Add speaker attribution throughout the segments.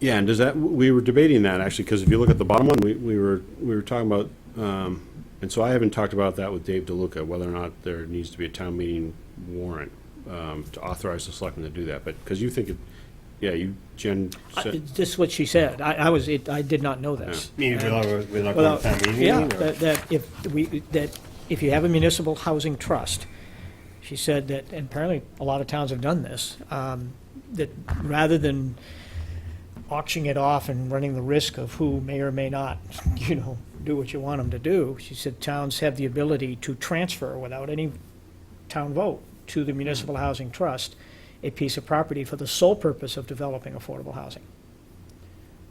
Speaker 1: Yeah, and does that, we were debating that actually, because if you look at the bottom one, we, we were, we were talking about, um, and so I haven't talked about that with Dave DeLuca, whether or not there needs to be a town meeting warrant, um, to authorize the selectmen to do that, but, because you think, it yeah, you, Jen,
Speaker 2: I-
Speaker 1: said-
Speaker 2: This is what she said. I, I was, it- I did not know that.
Speaker 3: Meaning we're not, we're not going
Speaker 2: Well,
Speaker 3: to town meeting?
Speaker 2: yeah,
Speaker 3: or-
Speaker 2: that, that if we, that if you have a municipal housing trust, she said that, and apparently a lot of towns have done this, um, that rather than auctioning it off and running the risk of who may or may not, you know, do what you want them to do, she said towns have the ability to transfer without any town vote to the municipal housing trust a piece of property for the sole purpose of developing affordable housing,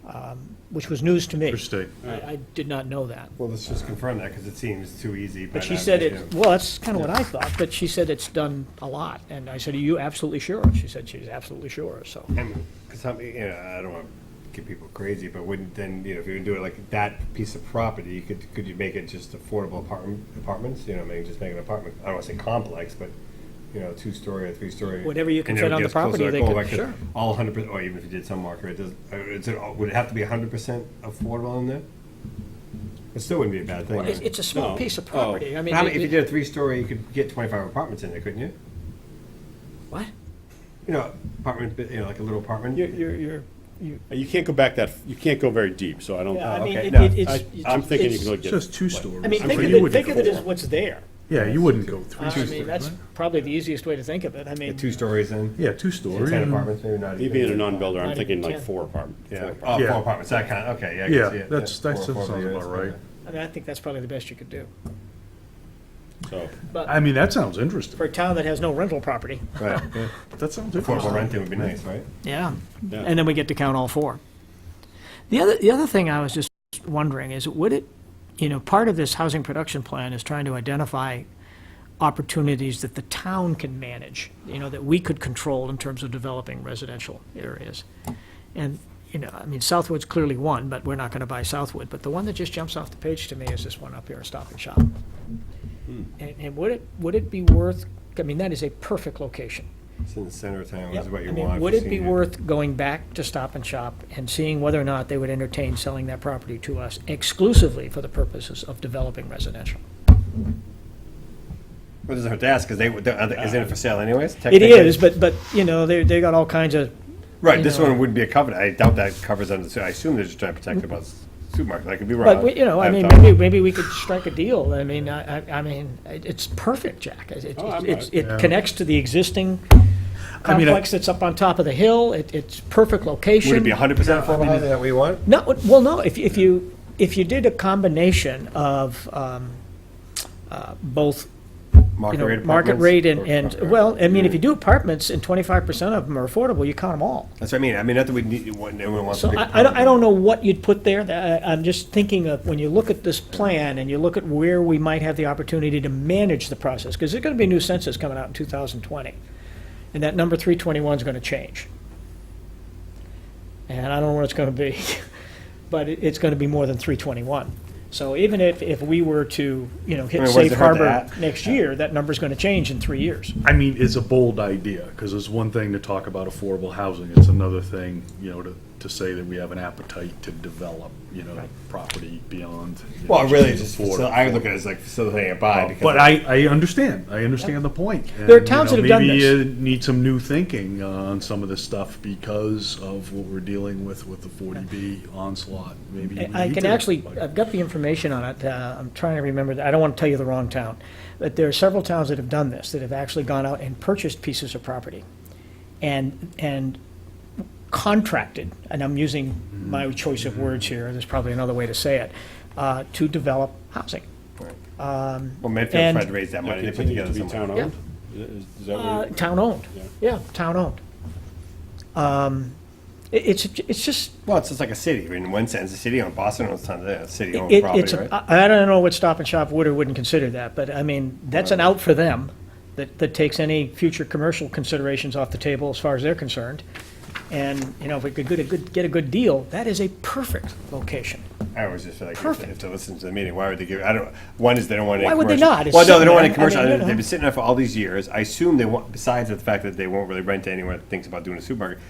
Speaker 2: Um, which was news to me.
Speaker 4: Interesting.
Speaker 2: I, I did not know that.
Speaker 3: Well, let's just confirm that, because it seems too easy. by
Speaker 2: But she
Speaker 3: not
Speaker 2: said
Speaker 3: making
Speaker 2: it, well, that's kind of what I thought, but she said it's done a lot. And I said, are you absolutely sure? She said she's absolutely sure, so.
Speaker 3: Because I mean, you know, I don't want to get people crazy, but wouldn't then, you know, if you're gonna do it like that piece of property, you could, could you make it just affordable apartment, apartments? You know, maybe just make an apartment, I don't want to say complex, but, you know, two-story or three-story.
Speaker 2: Whatever you can
Speaker 3: And
Speaker 2: fit
Speaker 3: it'll
Speaker 2: on
Speaker 3: get
Speaker 2: the
Speaker 3: us closer
Speaker 2: property,
Speaker 3: to
Speaker 2: they
Speaker 3: goal,
Speaker 2: could-
Speaker 3: like,
Speaker 2: sure.
Speaker 3: All hundred percent, or even if you did some market, it does, uh, is it, all- would it have to be hundred percent affordable in there? It still wouldn't be a bad
Speaker 2: It's,
Speaker 3: thing.
Speaker 2: it's a small
Speaker 1: No.
Speaker 2: piece of
Speaker 1: Oh.
Speaker 2: property. I mean,
Speaker 3: How many- If you
Speaker 2: it- it-
Speaker 3: did a three-story, you could get twenty-five apartments in there, couldn't you?
Speaker 2: what?
Speaker 3: You know, apartment, you know, like a little apartment.
Speaker 2: You're, you're, you're, you,
Speaker 1: Uh, you can't go back that, you can't go very deep, so I don't, uh,
Speaker 2: yeah, I
Speaker 1: I,
Speaker 2: mean,
Speaker 3: okay,
Speaker 2: it-
Speaker 3: no,
Speaker 2: it- it's. it's-
Speaker 1: I'm thinking you
Speaker 2: it's-
Speaker 1: can look
Speaker 4: It's
Speaker 1: at.
Speaker 4: just two stories.
Speaker 2: I mean,
Speaker 1: I'm
Speaker 2: think
Speaker 1: sure
Speaker 2: of
Speaker 1: you
Speaker 2: it,
Speaker 4: wouldn't
Speaker 2: think of it
Speaker 4: go-
Speaker 2: as what's there.
Speaker 4: Yeah, you wouldn't go
Speaker 2: I
Speaker 4: three
Speaker 2: mean,
Speaker 4: stories,
Speaker 2: that's
Speaker 4: right?
Speaker 2: probably the easiest way to think of it. I mean,
Speaker 3: Two stories in?
Speaker 4: Yeah, two stories.
Speaker 3: Ten apartments, maybe not
Speaker 1: Me
Speaker 3: even.
Speaker 1: being a non-builder, I'm
Speaker 2: Not
Speaker 1: thinking
Speaker 2: even
Speaker 1: like
Speaker 2: ten.
Speaker 1: four apartment, four
Speaker 3: Yeah,
Speaker 1: apartment.
Speaker 3: oh,
Speaker 4: Yeah.
Speaker 3: four apartments, that kind of, okay, yeah. I can
Speaker 4: Yeah,
Speaker 3: see it,
Speaker 4: that's,
Speaker 3: yeah.
Speaker 4: that's,
Speaker 3: Four,
Speaker 4: that
Speaker 3: four
Speaker 4: sounds
Speaker 3: years,
Speaker 4: about right.
Speaker 3: okay.
Speaker 2: I mean, I think that's probably the best you could do.
Speaker 1: so,
Speaker 4: I mean, that sounds interesting.
Speaker 2: For a town that has no rental property.
Speaker 3: Right, yeah.
Speaker 4: That sounds
Speaker 3: Affordable
Speaker 4: interesting.
Speaker 3: renting would be nice, right?
Speaker 2: Yeah,
Speaker 1: Yeah.
Speaker 2: and then we get to count all four. The other, the other thing I was just wondering is, would it, you know, part of this housing production plan is trying to identify opportunities that the town can manage, you know, that we could control in terms of developing residential areas. And, you know, I mean, Southwood's clearly one, but we're not gonna buy Southwood, but the one that just jumps off the page to me is this one up here, Stop and Shop. And, and would it, would it be worth, I mean, that is a perfect location.
Speaker 3: It's in the center of town,
Speaker 2: Yep.
Speaker 3: is what
Speaker 2: I
Speaker 3: you
Speaker 2: mean,
Speaker 3: want.
Speaker 2: Would
Speaker 3: for
Speaker 2: it be
Speaker 3: senior.
Speaker 2: worth going back to Stop and Shop and seeing whether or not they would entertain selling that property to us exclusively for the purposes of developing residential?
Speaker 3: Well, it doesn't hurt to ask, because they, would- are they- isn't it for sale anyways?
Speaker 2: It
Speaker 3: technically?
Speaker 2: is, but, but, you know, they, they got all kinds of,
Speaker 3: Right,
Speaker 2: you
Speaker 3: this
Speaker 2: know.
Speaker 3: one wouldn't be a covenant, I doubt that covers under, so I assume they're just trying to protect about supermarket, I could be wrong.
Speaker 2: but, we- you know, I
Speaker 3: haven't
Speaker 2: mean,
Speaker 3: thought-
Speaker 2: maybe, maybe we could strike a deal. I mean, I, I- I mean, it- it's perfect, Jack. It, it-
Speaker 1: Oh, I'm
Speaker 2: it's-
Speaker 1: not-
Speaker 2: it connects to the existing
Speaker 4: I mean, I-
Speaker 2: complex that's up on top of the hill. It, it's perfect location.
Speaker 3: Would it be hundred percent affordable housing that we want?
Speaker 2: No, well, no, if, if you, if you did a combination of, um, uh, both you know, market rate and, and, well, I mean, if you do apartments and twenty-five percent of them are affordable, you count them all.
Speaker 3: That's what I mean, I mean, not that we need, everyone wants.
Speaker 2: So
Speaker 3: big
Speaker 2: I, I don't, I
Speaker 3: apartment.
Speaker 2: don't know what you'd put there, That- I, I'm just thinking of, when you look at this plan and you look at where we might have the opportunity to manage the process, because there's gonna be a new census coming out in two thousand twenty, and that number three twenty-one's gonna change. And I don't know what it's gonna be, but it, it's gonna be more than three twenty-one. So even if, if we were to, you know,
Speaker 3: I
Speaker 2: hit
Speaker 3: mean, what
Speaker 2: safe
Speaker 3: does it hurt to
Speaker 2: harbor
Speaker 3: add?
Speaker 2: next year, that number's gonna change in three years.
Speaker 4: I mean, it's a bold idea, because it's one thing to talk about affordable housing, it's another thing, you know, to, to say that we have an appetite to develop, you know, property beyond. you know,
Speaker 3: Well, really, it's just,
Speaker 4: affordable.
Speaker 3: facil- I look at it as like facilitating a buy, because.
Speaker 4: But I, I understand, I understand the point.
Speaker 2: There are
Speaker 4: And, you
Speaker 2: towns
Speaker 4: know,
Speaker 2: that have done
Speaker 4: Maybe
Speaker 2: this.
Speaker 4: you need some new thinking uh, on some of this stuff because of what we're dealing with, with the 40B onslaught, maybe. we
Speaker 2: I
Speaker 4: need
Speaker 2: can
Speaker 4: to-
Speaker 2: actually,
Speaker 4: like-
Speaker 2: I've got the information on it, uh, I'm trying to remember, that- I don't want to tell you the wrong town, but there are several towns that have done this, that have actually gone out and purchased pieces of property and, and contracted, and I'm using my choice of words here, there's probably another way to say it, uh, to develop housing.
Speaker 3: Well, Medfield's
Speaker 2: um, And-
Speaker 3: tried to raise that money, they put
Speaker 1: Continue
Speaker 3: together
Speaker 1: to be
Speaker 3: some.
Speaker 1: town owned? Is is that
Speaker 2: Uh,
Speaker 1: what? you-
Speaker 2: Town-owned, yeah, town-owned. Um, it- It's, it's just,
Speaker 3: Well, it's just like a city, I mean, in one sense, the city owns, Boston owns tons of that, city owned
Speaker 2: It- It's,
Speaker 3: property, right?
Speaker 2: I I don't know what Stop and Shop would or wouldn't consider that, but I mean, that's an out for them that, that takes any future commercial considerations off the table as far as they're concerned. And, you know, if we could get a good, get a good deal, that is a perfect location.
Speaker 3: I always just feel like, if-
Speaker 2: Perfect.
Speaker 3: if they listen to the meeting, why would they give, I don't, one is they don't want any
Speaker 2: Why would they
Speaker 3: commercial-
Speaker 2: not? It's
Speaker 3: Well, no, they
Speaker 2: sitting
Speaker 3: don't want
Speaker 2: there.
Speaker 3: any
Speaker 2: I
Speaker 3: commercial,
Speaker 2: mean, you
Speaker 3: they've
Speaker 2: know.
Speaker 3: been sitting there for all these years, I assume they want, besides the fact that they won't really rent to anyone that thinks about doing a supermarket,